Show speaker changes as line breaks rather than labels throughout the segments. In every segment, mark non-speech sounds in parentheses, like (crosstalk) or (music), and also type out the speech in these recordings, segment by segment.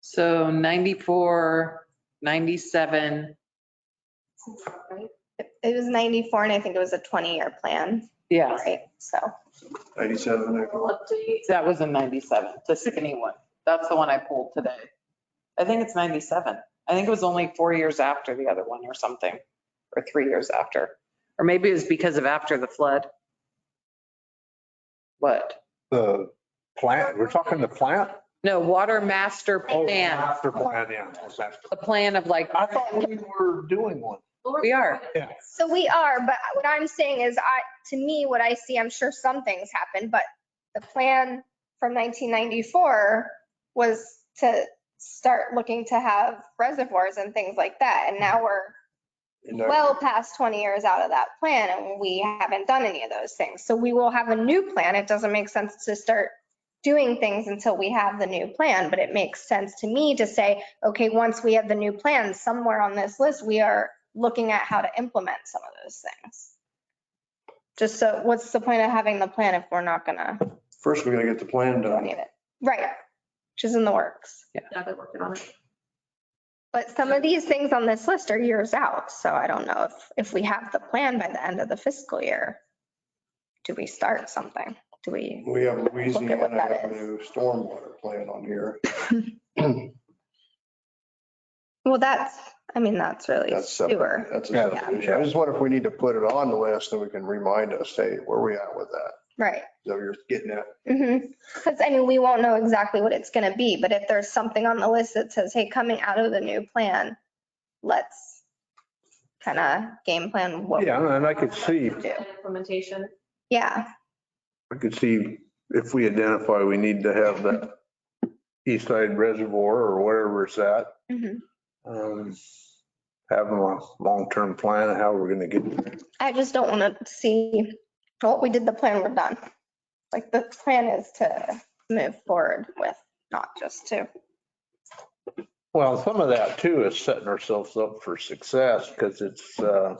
So 94, 97,
It was 94 and I think it was a 20-year plan,
yeah,
right? So,
97, I
We'll update.
that was a 97, the skinny one. That's the one I pulled today. I think it's 97. I think it was only four years after the other one or something, or three years after. Or maybe it was because of after the flood. What?
The plant, we're talking the plant?
No, water master
Oh,
plan,
Master plan, yeah. that's after.
the plan of like,
I thought we were doing one.
we are.
so we are, but what I'm saying is I, to me, what I see, I'm sure some things happened, but the plan from 1994 was to start looking to have reservoirs and things like that. And now we're
And I-
well past 20 years out of that plan and we haven't done any of those things. So we will have a new plan. It doesn't make sense to start doing things until we have the new plan, but it makes sense to me to say, okay, once we have the new plan, somewhere on this list, we are looking at how to implement some of those things. Just so, what's the point of having the plan if we're not gonna
First, we gotta get the plan
do any
done.
of it? Right, which is in the works.
Yeah, they're working on it.
But some of these things on this list are years out, so I don't know if, if we have the plan by the end of the fiscal year. Do we start something? Do we,
We have
Look at what
Louisiana
that is.
Avenue stormwater plan on here.
well, that's, I mean, that's really
That's separate.
sewer.
That's a
Yeah.
subdivision. I just wonder if we need to put it on the list, then we can remind us, hey, where we at with that?
Right.
So you're getting at,
Because I mean, we won't know exactly what it's going to be, but if there's something on the list that says, hey, coming out of the new plan, let's kind of game plan what,
Yeah, and I could see,
Implementation.
yeah,
I could see if we identify we need to have that east side reservoir or wherever it's at,
mhm.
um, having a long-term plan of how we're gonna get there.
I just don't want to see, well, we did the plan, we're done. Like, the plan is to move forward with, not just to,
Well, some of that too is setting ourselves up for success because it's, uh,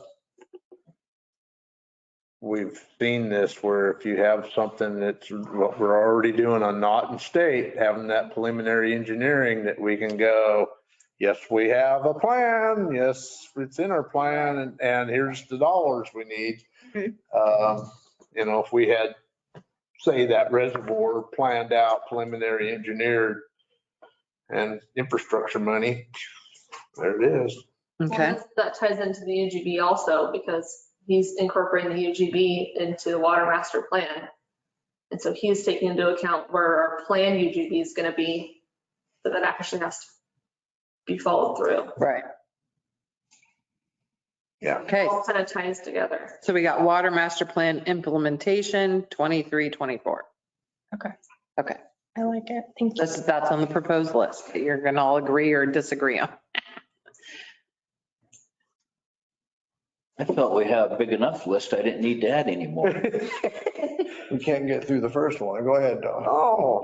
we've seen this where if you have something that's what we're already doing on Naughton State, having that preliminary engineering that we can go, yes, we have a plan. Yes, it's in our plan and, and here's the dollars we need.
Mhm.
Um, You know, if we had, say that reservoir planned out, preliminary engineered, and infrastructure money. There it is.
Okay,
Well, That ties into the UGB also because he's incorporating the UGB into the water master plan. And so he's taking into account where our plan UGB is going to be, so that actually has to be followed through.
right.
Yeah.
Okay,
All kind of ties together.
so we got water master plan implementation 23, 24.
I like it, thank you.
That's, that's on the proposed list that you're going to all agree or disagree on.
I felt we had a big enough list. I didn't need to add anymore.
we can't get through the first one. Go ahead, Don.
Oh,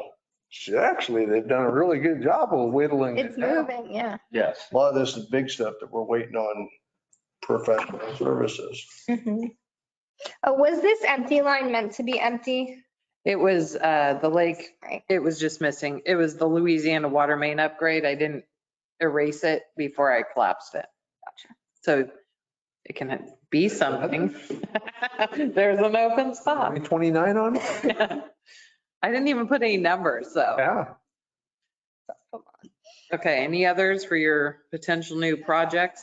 she- actually, they've done a really good job of whittling
It's
it down.
moving, yeah.
Yes.
A lot of this is big stuff that we're waiting on professional services.
Mhm. Oh, was this empty line meant to be empty?
It was uh, the lake,
Right.
it was just missing. It was the Louisiana water main upgrade. I didn't erase it before I collapsed it.
Gotcha.
So it can be something. (laughs) There's an open spot. (laughs)
29 on it?
I didn't even put any numbers, so.
Yeah.
Okay, any others for your potential new projects?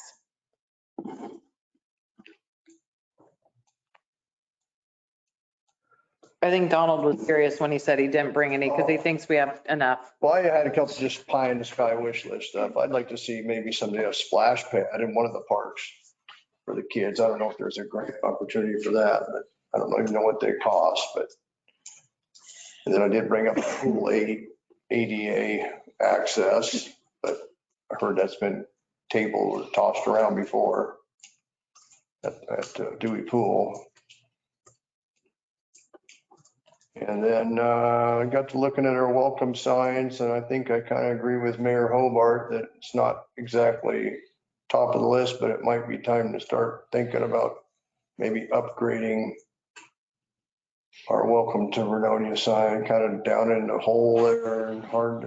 I think Donald was serious when he said he didn't bring any because he thinks we have enough.
Well, I had a couple just pie in the sky wish list stuff. I'd like to see maybe someday a splash pad in one of the parks for the kids. I don't know if there's a grant opportunity for that, but I don't even know what they cost, but. And then I did bring up pool aid, ADA access, but I heard that's been tabled or tossed around before at, at uh, Dewey Pool. And then uh, I got to looking at our welcome signs, and I think I kind of agree with Mayor Hobart that it's not exactly top of the list, but it might be time to start thinking about maybe upgrading our welcome to Vernonia sign, kind of down in the hole there and hard to